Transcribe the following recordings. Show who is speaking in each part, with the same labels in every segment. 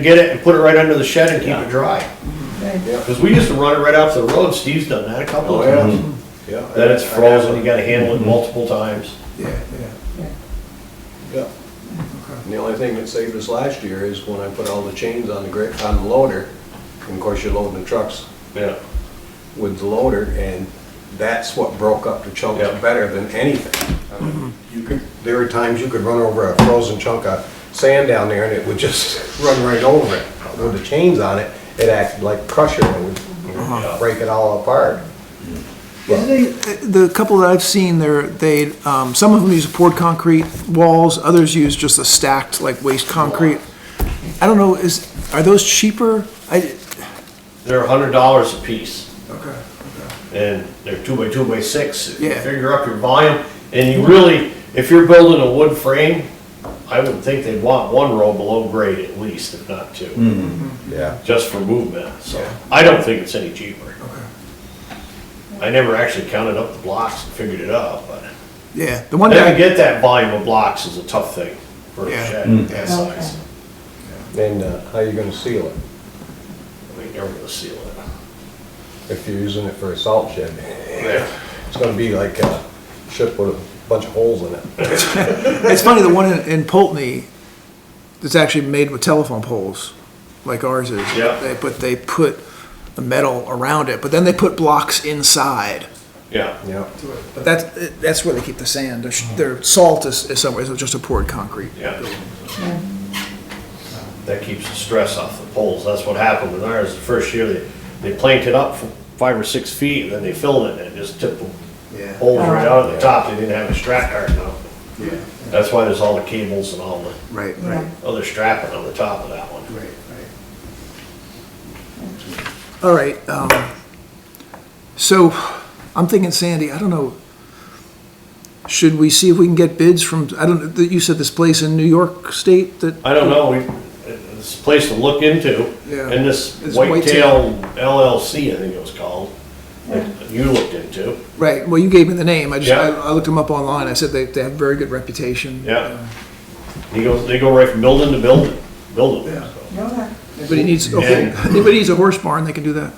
Speaker 1: get it and put it right under the shed and keep it dry.
Speaker 2: Yeah.
Speaker 1: Cause we used to run it right off the road, Steve's done that a couple
Speaker 2: Oh,
Speaker 1: of
Speaker 2: yeah.
Speaker 1: times.
Speaker 2: Yeah.
Speaker 1: Mm-hmm. Then it's frozen, Mm-hmm. you gotta handle it multiple times.
Speaker 2: Yeah, yeah. Yeah. And the only thing that saved us last year is when I put all the chains on the great, on the loader, and of course you're loading the trucks
Speaker 1: Yeah.
Speaker 2: with the loader, and that's what broke up the chunks
Speaker 1: Yeah.
Speaker 2: better than anything. I mean, You could, there were times you could run over a frozen chunk of sand down there and it would just run right over it. With the chains on it, it acted like crusher and would you know,
Speaker 1: Uh-huh.
Speaker 2: break it all apart.
Speaker 3: They- The couple that I've seen, they're, they, um, some of them use poured concrete walls, others use just a stacked, like waste concrete. I don't know, is, are those cheaper? I,
Speaker 1: They're a hundred dollars a piece
Speaker 3: okay.
Speaker 1: and they're two by two by six. If you
Speaker 3: Yeah.
Speaker 1: Figure up your volume and you really, if you're building a wood frame, I would think they'd want one row below grade at least, if not two,
Speaker 2: Yeah.
Speaker 1: just for movement, so. I don't think it's any cheaper. I never actually counted up the blocks and figured it out, but.
Speaker 3: Yeah, the one
Speaker 1: Then to
Speaker 3: guy,
Speaker 1: get that volume of blocks is a tough thing for a
Speaker 3: Yeah. Mm.
Speaker 1: shed that size.
Speaker 2: Then uh, how you gonna seal it?
Speaker 1: I mean, you're gonna seal it.
Speaker 2: If you're using it for a salt shed, it's gonna be like a ship with a bunch of holes in it.
Speaker 3: it's funny, the one in- in Polteny, it's actually made with telephone poles, like ours is.
Speaker 1: Yeah.
Speaker 3: They- But they put the metal around it, but then they put blocks inside.
Speaker 1: Yeah,
Speaker 2: Yeah.
Speaker 3: But that's, that's where they keep the sand, their, their salt is, is somewhere, it's just a poured concrete.
Speaker 1: yeah. That keeps the stress off the poles. That's what happened with ours. The first year, they, they planked it up for five or six feet, and then they filled it, and it just tipped the
Speaker 3: Yeah.
Speaker 1: poles right out of the top. They didn't have a strap guard now.
Speaker 3: Yeah.
Speaker 1: That's why there's all the cables and all the
Speaker 3: Right,
Speaker 4: Yeah.
Speaker 3: right,
Speaker 1: other strapping on the top of that one.
Speaker 3: right, right. All right, um, so I'm thinking Sandy, I don't know, should we see if we can get bids from, I don't, know. you said this place in New York State that,
Speaker 1: I don't know, we, it's a place to look into,
Speaker 3: Yeah.
Speaker 1: and this
Speaker 3: It's
Speaker 1: Whitetail LLC, I think it was called, that you looked into,
Speaker 3: right, well, you gave me the name, I just, I
Speaker 1: Yeah.
Speaker 3: I looked them up online, I said they, they have very good reputation.
Speaker 1: yeah. He goes, they go right from building to building, building.
Speaker 3: Yeah.
Speaker 1: so.
Speaker 4: Okay.
Speaker 3: Anybody needs, okay, anybody needs a horse barn, they can do that.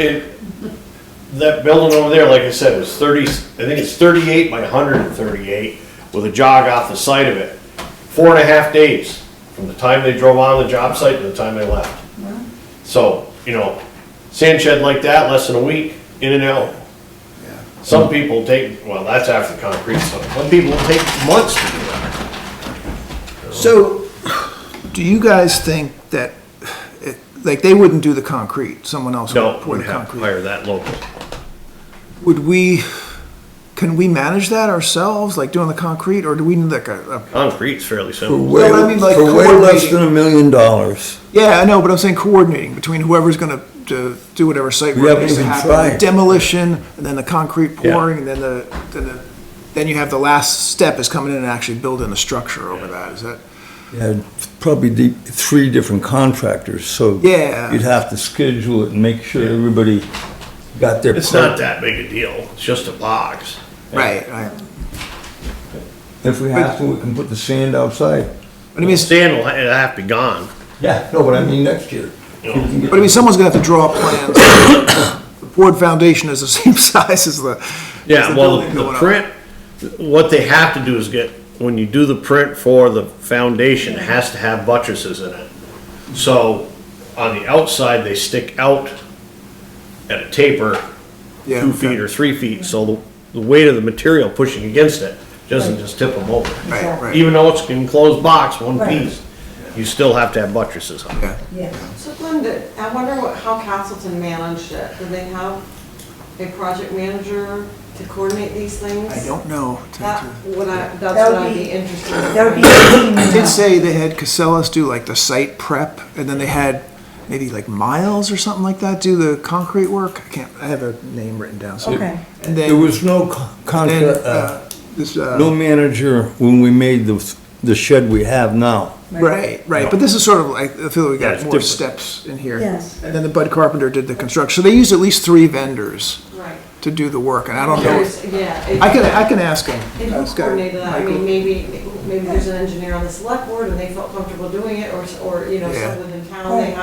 Speaker 1: And that building over there, like I said, was thirty, I think it's thirty-eight by hundred and thirty-eight, with a jog off the side of it. Four and a half days from the time they drove on the job site to the time they left. So, you know, sand shed like that, less than a week, in and out. Some people take, well, that's after the concrete, so some people take months to do that.
Speaker 3: So, do you guys think that, it- like, they wouldn't do the concrete, someone else would pour the concrete?
Speaker 1: that local.
Speaker 3: Would we, can we manage that ourselves, like doing the concrete, or do we need like a, a-
Speaker 1: Concrete's fairly simple.
Speaker 3: No, but I mean, like,
Speaker 5: For way less
Speaker 3: coordinating.
Speaker 5: than a million dollars.
Speaker 3: yeah, I know, but I'm saying coordinating between whoever's gonna do do whatever site
Speaker 5: We
Speaker 3: work
Speaker 5: haven't
Speaker 3: needs to
Speaker 5: even
Speaker 3: happen.
Speaker 5: tried.
Speaker 3: Demolition, and then the concrete
Speaker 1: Yeah.
Speaker 3: pouring, and then the, then the, then you have the last step is coming in and actually building the structure over that, is that?
Speaker 5: Yeah, probably the, three different contractors, so.
Speaker 3: Yeah.
Speaker 5: You'd have to schedule it and make sure everybody got their.
Speaker 1: It's
Speaker 5: part.
Speaker 1: not that big a deal, it's just a box.
Speaker 3: Right, right.
Speaker 5: If we have to, we can put the sand outside.
Speaker 3: But I mean, it's-
Speaker 1: Sand will, ha- it'll have to be gone.
Speaker 5: Yeah, no, but I mean next year.
Speaker 1: you
Speaker 5: We can
Speaker 1: know.
Speaker 5: get-
Speaker 3: But I mean, someone's gonna have to draw up plans. The board foundation is the same size as the. as
Speaker 1: Yeah,
Speaker 3: the
Speaker 1: well,
Speaker 3: building
Speaker 1: the- the
Speaker 3: going up.
Speaker 1: print, what they have to do is get, when you do the print for the foundation, it has to have buttresses in it. So on the outside, they stick out at a taper,
Speaker 3: Yeah,
Speaker 1: two feet
Speaker 3: okay.
Speaker 1: or three feet, so the, the weight of the material pushing against it doesn't just tip them over.
Speaker 3: Right, right.
Speaker 1: Even though it's an enclosed box, one
Speaker 4: Right.
Speaker 1: piece, you still have to have buttresses on it.
Speaker 3: Yeah.
Speaker 4: Yeah.
Speaker 6: So Glenda, I wonder what, how Castleton managed it? Do they have a project manager to coordinate these things?
Speaker 3: I don't know. to-
Speaker 6: That
Speaker 3: to-
Speaker 6: would I, that's
Speaker 4: That
Speaker 6: what
Speaker 4: would
Speaker 6: I'd
Speaker 4: be-
Speaker 6: be interested in.
Speaker 4: That would be.
Speaker 3: I did say they had Casellas do like the site prep, and then they had maybe like Miles or something like that do the concrete work. I can't, I have a name written down, so.
Speaker 4: Okay.
Speaker 3: And
Speaker 5: There
Speaker 3: then,
Speaker 5: was no con-
Speaker 3: then,
Speaker 5: contra, uh,
Speaker 3: uh, this, uh.
Speaker 5: no manager when we made the, the shed we have now.
Speaker 3: Right, right, but this is sort of like, I feel we
Speaker 1: Yeah,
Speaker 3: got
Speaker 1: it's
Speaker 3: more
Speaker 1: different.
Speaker 3: steps in here.
Speaker 4: Yes.
Speaker 3: And then the Bud Carpenter did the construction, so they used at least three vendors
Speaker 6: Right.
Speaker 3: to do the work, and I don't know.
Speaker 6: There's- Yeah. it-
Speaker 3: I can, I can ask him.
Speaker 6: And who
Speaker 3: Ask, uh,
Speaker 6: coordinated that? I mean,
Speaker 3: Michael.
Speaker 6: maybe, maybe there's an engineer on the select board and they felt comfortable doing it, or, or, you know,
Speaker 3: Yeah.
Speaker 6: someone in town, they